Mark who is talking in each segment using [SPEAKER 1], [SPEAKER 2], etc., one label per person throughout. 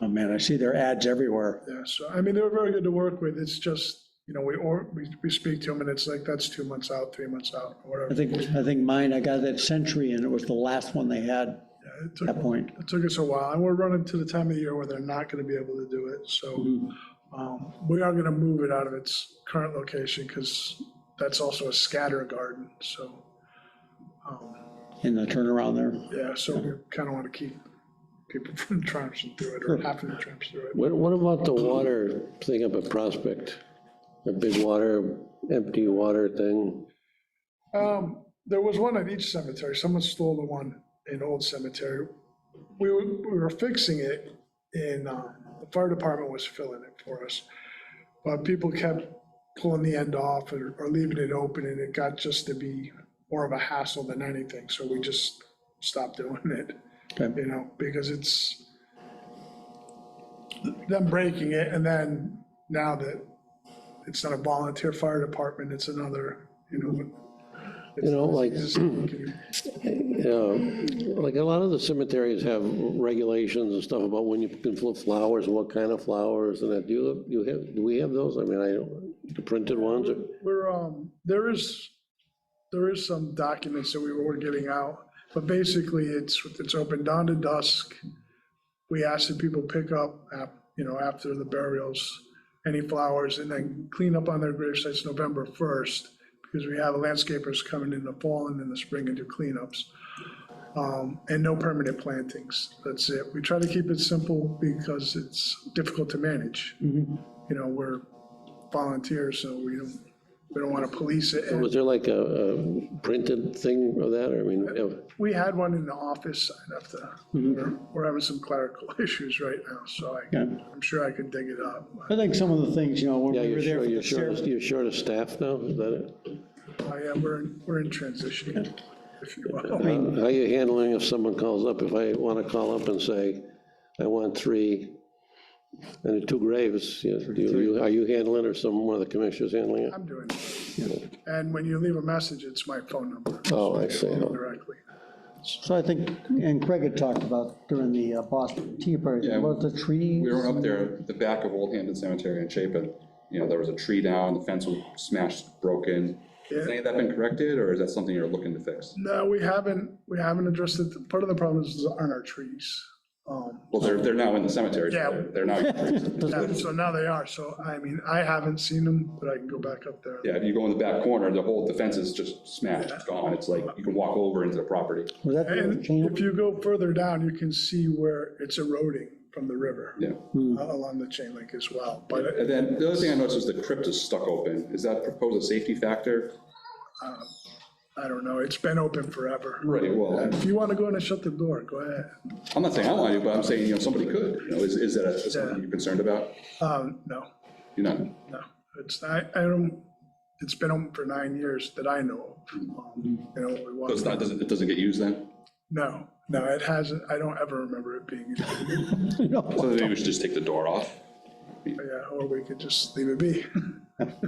[SPEAKER 1] Oh, man, I see their ads everywhere.
[SPEAKER 2] Yeah, so, I mean, they were very good to work with, it's just, you know, we, or, we, we speak to them and it's like, that's two months out, three months out, or
[SPEAKER 1] I
[SPEAKER 2] whatever.
[SPEAKER 1] think, I think mine, I got that Century, and it was the last one they had at
[SPEAKER 2] Yeah, It took,
[SPEAKER 1] that point.
[SPEAKER 2] it took us a while, and we're running to the time of the year where they're not gonna be able to do it, so, um, we are gonna move it out of its current location, because that's also a scatter garden, so, um,
[SPEAKER 1] in the turnaround there.
[SPEAKER 2] yeah, so we kinda wanna keep people from trampling through it, or having to tramp through it.
[SPEAKER 3] What, what about the water thing up at Prospect? The big water, empty water thing?
[SPEAKER 2] Um, there was one at each cemetery. Someone stole the one in Old Cemetery. We were, we were fixing it and, um, the fire department was filling it for us. But people kept pulling the end off or, or leaving it open and it got just to be more of a hassle than anything. So we just stopped doing it,
[SPEAKER 1] Okay.
[SPEAKER 2] you know, because it's them breaking it and then now that it's not a volunteer fire department, it's another, you know,
[SPEAKER 3] You know, like,
[SPEAKER 2] it's- can
[SPEAKER 3] you know, like a lot of the cemeteries have regulations and stuff about when you can put flowers, what kind of flowers and that. Do you, you have, do we have those? I mean, I, don't- the printed ones or?
[SPEAKER 2] you- We're, um, there is, there is some documents that we were giving out, but basically it's, it's open dawn to dusk. We ask that people pick up, ap- you know, after the burials, any flowers and then clean up on their grave sites November 1st because we have landscapers coming in the fall and in the spring and do cleanups. Um, And no permanent plantings. That's it. We try to keep it simple because it's difficult to manage. You know, we're volunteers, so we don't, we don't want to police it. And
[SPEAKER 3] Was there like a, a printed thing of that? or I mean, if-
[SPEAKER 2] We had one in the office. I'd have to,
[SPEAKER 3] Mm-hmm.
[SPEAKER 2] we're- we're having some clerical issues right now, so I,
[SPEAKER 1] Okay.
[SPEAKER 2] I'm sure I could dig it up.
[SPEAKER 1] I think some of the things, you know, when
[SPEAKER 3] yeah,
[SPEAKER 1] we
[SPEAKER 3] you're
[SPEAKER 1] were there
[SPEAKER 3] short,
[SPEAKER 1] for
[SPEAKER 3] you're
[SPEAKER 1] the
[SPEAKER 3] short,
[SPEAKER 1] ceremony.
[SPEAKER 3] of- you're short of staff now? Is that it?
[SPEAKER 2] Oh, yeah, we're, in- we're in transition, if you will.
[SPEAKER 3] Uh, How you handling if someone calls up? If I want to call up and say, I want three, and two graves, you- do you- are you handling it or some, one of the commissioners handling it?
[SPEAKER 2] I'm doing it. And when you leave a message, it's my phone number.
[SPEAKER 3] Oh, I see.
[SPEAKER 2] Directly.
[SPEAKER 1] So I think, and Craig had talked about during the uh, Boston Tea Party,
[SPEAKER 4] Yeah.
[SPEAKER 1] about the trees.
[SPEAKER 4] We were up there, at the back of Old Hampton Cemetery in Chapin, you know, there was a tree down, the fence was smashed, broken. Has any of that been corrected, or is that something you're looking to fix?
[SPEAKER 2] No, we haven't, we haven't addressed it. Part of the problem is aren't our trees. Um,
[SPEAKER 4] Well, they're, they're now in the cemetery,
[SPEAKER 2] Yeah.
[SPEAKER 4] they're they're now,
[SPEAKER 2] yeah, So now they are, so I mean, I haven't seen them, but I can go back up there.
[SPEAKER 4] yeah, if you go in the back corner, the whole, the fence is just smashed, it's gone, it's like, you can walk over into the property.
[SPEAKER 1] Was that the
[SPEAKER 2] And
[SPEAKER 1] camp?
[SPEAKER 2] if you go further down, you can see where it's eroding from the river
[SPEAKER 4] Yeah,
[SPEAKER 2] uh, along the chain link as well. But
[SPEAKER 4] and then the other thing I noticed is the crypt is stuck open, is that proposed a safety factor?
[SPEAKER 2] I don't know, it's been open forever.
[SPEAKER 4] Right, well,
[SPEAKER 2] If you want to go in and shut the door, go ahead.
[SPEAKER 4] I'm not saying I want to, but I'm saying, you know, somebody could, you know, is, is that a- is something you're concerned about?
[SPEAKER 2] Um, No,
[SPEAKER 4] You're not,
[SPEAKER 2] no, it's, I, I don't, it's been open for nine years that I know of. Um, You know, we
[SPEAKER 4] so it's
[SPEAKER 2] walked,
[SPEAKER 4] not, doesn't, it doesn't get used then?
[SPEAKER 2] no, no, it hasn't, I don't ever remember it being, in-
[SPEAKER 1] No.
[SPEAKER 4] So maybe we should just take the door off?
[SPEAKER 2] yeah, or we could just leave it be,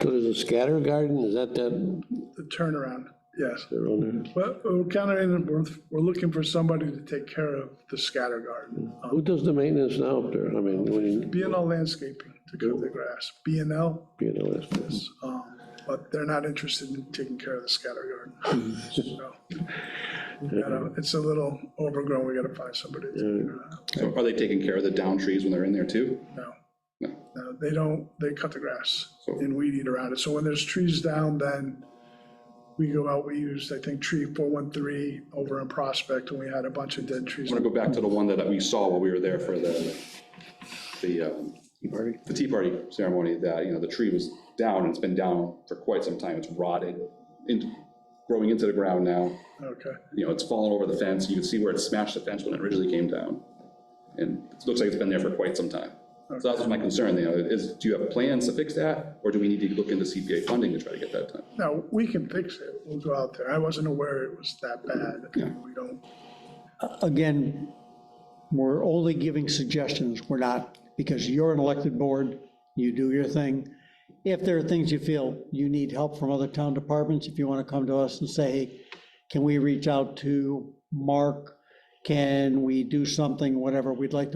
[SPEAKER 3] So there's a scatter garden, is that that?
[SPEAKER 2] the turnaround, yes.
[SPEAKER 3] they're on there?
[SPEAKER 2] But we're kind of, in- we're, we're looking for somebody to take care of the scatter garden. Um,
[SPEAKER 3] Who does the maintenance now up there? I mean, when you,
[SPEAKER 2] B and L landscaping to cut the grass, B and L,
[SPEAKER 3] you know, that's-
[SPEAKER 2] um, but they're not interested in taking care of the scatter garden. So, you know, It's a little overgrown, we gotta find somebody to take care of that.
[SPEAKER 4] So are they taking care of the down trees when they're in there too?
[SPEAKER 2] No.
[SPEAKER 4] No.
[SPEAKER 2] No, they don't, they cut the grass
[SPEAKER 4] So-
[SPEAKER 2] and weed eat around it. So when there's trees down, then we go out, we used, I think, tree 413 over in Prospect, and we had a bunch of dead trees.
[SPEAKER 4] I'm gonna go back to the one that we saw while we were there for the, the, um, the Tea Party ceremony, that, you know, the tree was down, and it's been down for quite some time, it's rotted, in, growing into the ground now,
[SPEAKER 2] Okay.
[SPEAKER 4] you know, it's fallen over the fence, you can see where it smashed the fence when it originally came down. And it looks like it's been there for quite some time. So that was my concern, you know, is, do you have plans to fix that, or do we need to look into CPA funding to try to get that done?
[SPEAKER 2] No, we can fix it. We'll go out there. I wasn't aware it was that bad. We don't,
[SPEAKER 1] Again, we're only giving suggestions, we're not, because you're an elected board, you do your thing. If there are things you feel you need help from other town departments, if you want to come to us and say, hey, can we reach out to Mark? Can we do something, whatever, we'd like to.